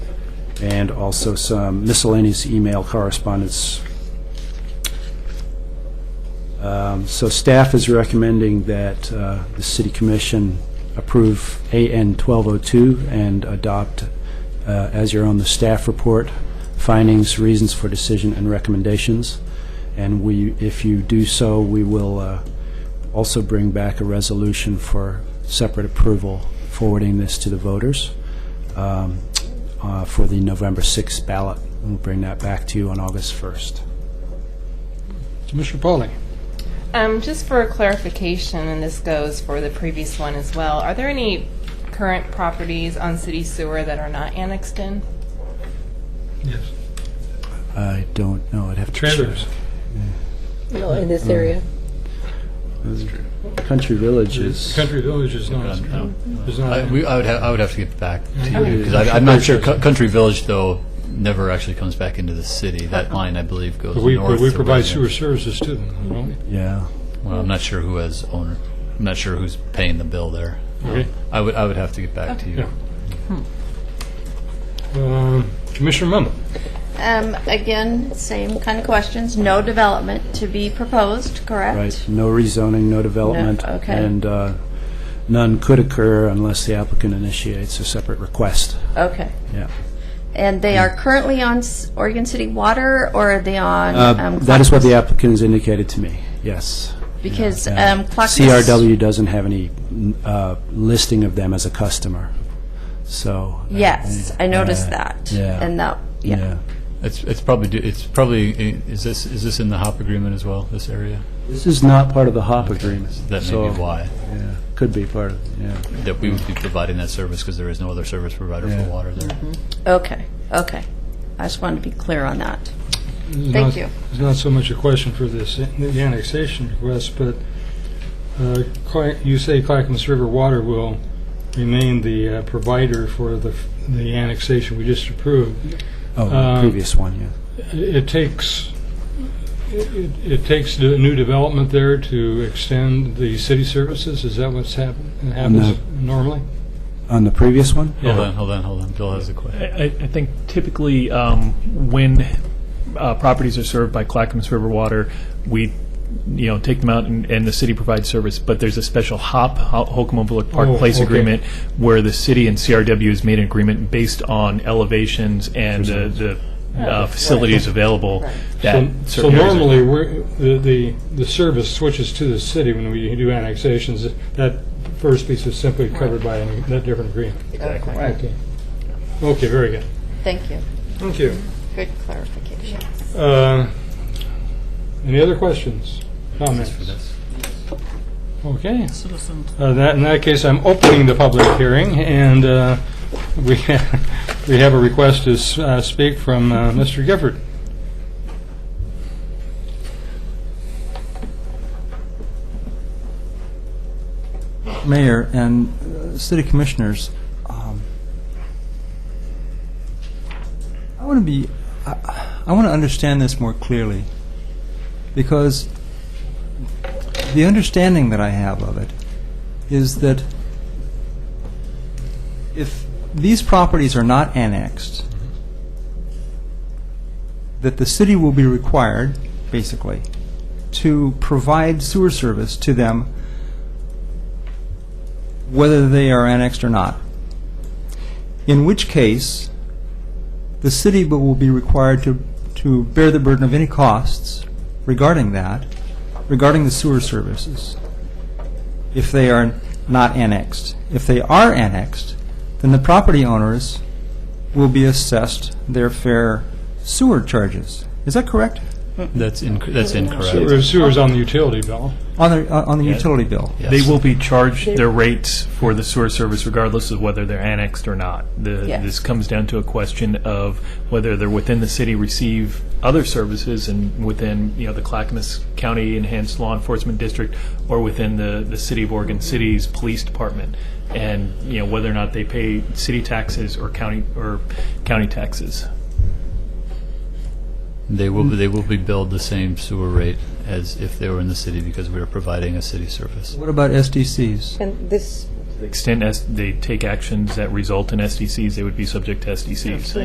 and also some miscellaneous email correspondence. Um, So staff is recommending that uh, the city commission approve AN 1202 and adopt uh, as your own the staff report, findings, reasons for decision, and recommendations. And we, if you do so, we will uh, also bring back a resolution for separate approval, forwarding this to the voters um, uh, for the November 6th ballot. We'll bring that back to you on August 1st. Commissioner Pauly. Um, just for clarification, and this goes for the previous one as well, are there any current properties on city sewer that are not annexed in? Yes. I don't know, I'd have to check. Trailers. No, in this area. Country villages. Country Village is not, No. is not. I, we, I would have, I would have to get back to you, Okay. because I'm not sure, Cou- Country Village, though, never actually comes back into the city. That line, I believe, goes Uh-uh. But we, but north. we to provide sewer residents. services to them, don't Yeah. Well, I'm not sure who has owner, I'm not sure who's paying the bill there. we? Okay. I would, I would have to get back to you. Yeah. Um, Commissioner Memmel. Um, again, same kind of questions, no development to be proposed, correct? Right, no rezoning, no development. No, okay. And uh, none could occur unless the applicant initiates a separate request. Okay. Yeah. And they are currently on S- Oregon City Water, or are they on? Uh, um, That is what the Clackamas? applicant has indicated to me, yes. Because Yeah. um, Clackamas. CRW doesn't have any uh, listing of them as a customer, so. uh, Yes, I noticed uh, that. Yeah. And that, yeah. It's, it's probably, do- it's probably, i- is this, is this in the HOP agreement as well, this area? This is not part of the HOP agreement. That may so, be why, yeah, Could be part of, yeah. that we would be providing that service, because there is no other service provider Yeah. for water there. Mm-hmm. Okay, okay. I just wanted to be clear on that. Thank you. It's not so much a question for this, the annexation request, but uh, Cla- you say Clackamas River Water will remain the uh, provider for the, f- the annexation we just approved. Oh, the Um, previous one, yeah. It takes, it- it it takes the new development there to extend the city services? Is that what's happen- happens normally? On the previous one? Hold Yeah. on, hold on, hold on, Bill has a question. I, I think typically um, when uh, properties are served by Clackamas River Water, we you know take them out and, and the city provides service. But there's a special HOP Ho- Holcomb Overlook Park Oh, Place okay. agreement where the city and CRW has made an agreement based on elevations and uh, the uh, facilities available. That So- So certain areas are- normally, we're, the, the, the service switches to the city when we do annexations. That first piece is simply covered by an- that different agreement. Exactly. Okay, Okay. very good. Thank you. Thank you. Good clarification. Uh, Any other questions, comments? Okay. Uh, that- In that case, I'm opening the public hearing, and uh, we we have a request to s- uh, speak from uh, Mr. Gifford. Mayor and uh, City Commissioners, um, I want to be, I want to understand this more clearly, because the understanding that I have of it is that if these properties are not annexed, that the city will be required, basically, to provide sewer service to them whether they are annexed or not. In which case, the city bu- will be required to, to bear the burden of any costs regarding that, regarding the sewer services, if they are not annexed. If they are annexed, then the property owners will be assessed their fair sewer charges. Is that correct? That's inc- that's Sewer- incorrect. Sewer's on the utility bill. On the, uh, on the utility bill? They will be charged their rates for the sewer service regardless of whether they're annexed or not. The- Yes. This comes down to a question of whether they're within the city, receive other services, and within, you know, the Clackamas County Enhanced Law Enforcement District, or within the, the City of Oregon City's Police Department, and, you know, whether or not they pay city taxes or county, or county taxes. They will, be- they will be billed the same sewer rate as if they were in the city because we are providing a city service. What about SDCs? And this To the extent as they take actions that result in SDCs, they would be subject to SDCs.